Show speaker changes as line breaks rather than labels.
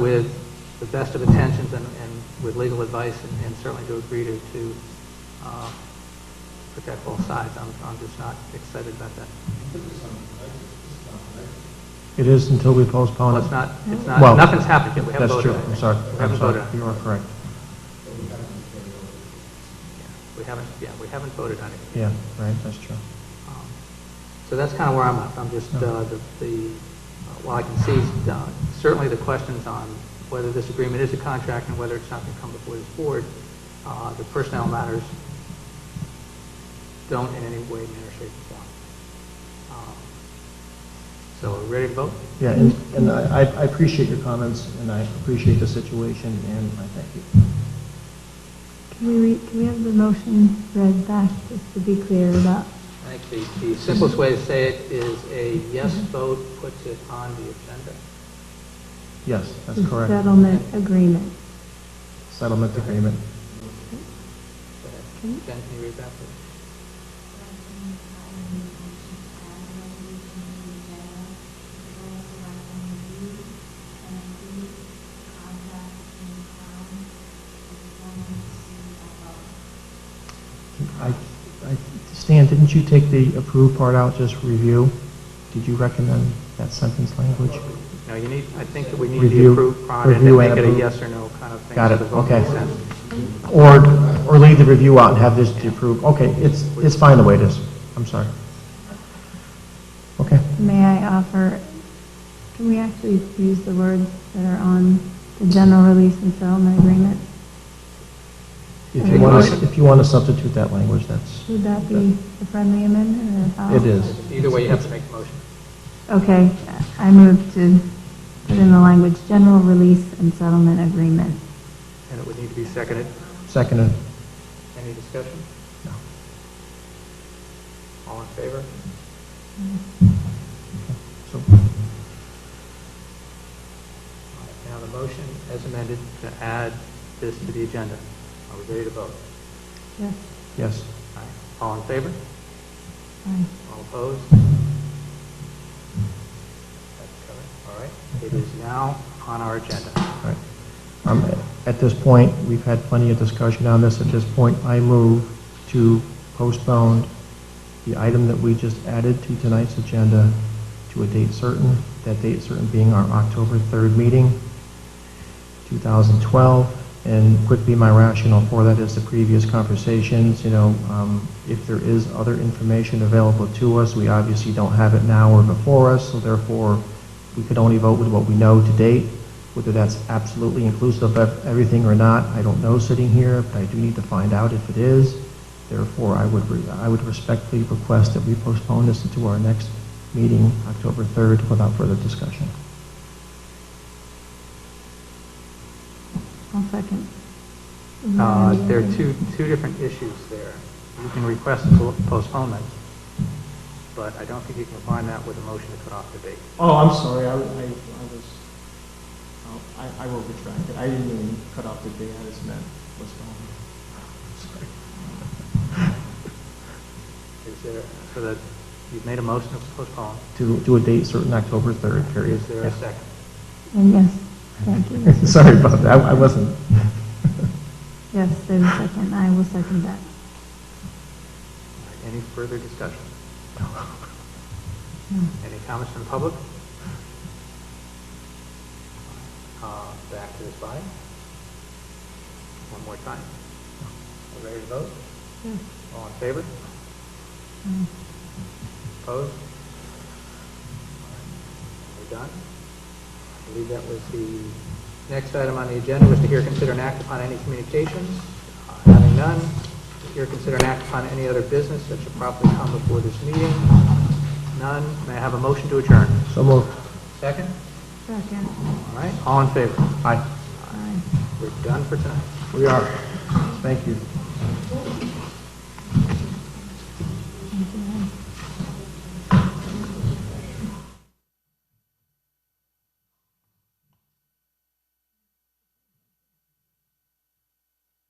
with the best of intentions and, and with legal advice, and- and certainly to agree to, to, uh, protect both sides. I'm, I'm just not excited about that.
It is until we
Well,
postpone
it's
it.
not, it's not,
Well,
nothing's happened yet, we haven't
That's
voted
true,
on it.
I'm sorry.
We
I'm
haven't
sorry.
voted on it.
You are correct,
We haven't, yeah, we haven't voted on it.
yeah, right, that's true.
Um, So that's kind of where I'm at. I'm just, uh, the, the, uh, while I can see uh, certainly the questions on whether this agreement is a contract and whether it's not going to come before this board, uh, the personnel matters don't in any way, manner, shape, or form. Um, So, are we ready to vote?
Yeah, and, and I, I appreciate your comments, and I appreciate the situation, and I thank you.
Can we, re- can we have the motion read back, just to be clear about,
I think the, the simplest way to say it is a yes vote puts it on the agenda.
Yes, that's
the
correct.
settlement agreement?
Settlement agreement.
Go ahead.
Okay.
Jen, can you read that, please?
I, I, Stan, didn't you take the approve part out, just review? Did you recommend that sentence language?
No, you need, I think that we need the
Review-
approved product and
review and
make it a
approve.
yes or no kind of thing.
Got
so
it,
the vote
okay.
makes sense.
Or, or leave the review out and have this to approve? Okay, it's, it's fine the way it is. I'm sorry. Okay.
May I offer, can we actually use the words that are on the general release and settlement agreement?
If you want to, if you want to substitute that language, that's,
Would that be a friendly amendment, or how?
it is.
Either way, you have to make a motion.
Okay, I move to put in the language, general release and settlement agreement.
And it would need to be seconded.
Seconded.
Any discussion?
No.
All in favor?
So,
All right, Now, the motion as amended to add this to the agenda. Are we ready to vote?
Yes,
yes.
All right. All in favor?
aye.
All opposed? That's covered. All right. It is now on our agenda.
All right. Um, At this point, we've had plenty of discussion on this. At this point, I move to postpone the item that we just added to tonight's agenda to a date certain, that date certain being our October 3rd meeting, 2012. And quickly, my rationale for that is the previous conversations, you know, um, if there is other information available to us, we obviously don't have it now or before us, so therefore, we could only vote with what we know to date. Whether that's absolutely inclusive of everything or not, I don't know sitting here, but I do need to find out if it is. Therefore, I would, re- I would respectfully request that we postpone this until our next meeting, October 3rd, without further discussion.
I'll second.
Uh, There are two, two different issues there. You can request a po- postponement, but I don't think you can find that with a motion to cut off the date.
Oh, I'm sorry, I, I, I was, oh, I, I will retract it, I didn't mean cut off the day, I just meant was gone. Sorry.
Is there, so that, you've made a motion to postpone.
To, to a date certain, October 3rd, period.
Is there a second?
And yes, thank you.
Sorry about that, I wasn't.
Yes, there's a second, I will second that.
Any further discussion? Any comments from the public? Uh, Back to this body. One more time. Are ready to vote?
Yes.
All in favor?
Aye.
Opposed? We're done. I believe that was the next item on the agenda, was to hear, consider, and act upon any communications. Uh, Having none, to hear, consider, and act upon any other business that should properly come before this meeting. None. May I have a motion to adjourn?
So moved.
Second?
Second.
All right, all in favor?
Aye.
Aye.
We're done for tonight.
We are. Thank you.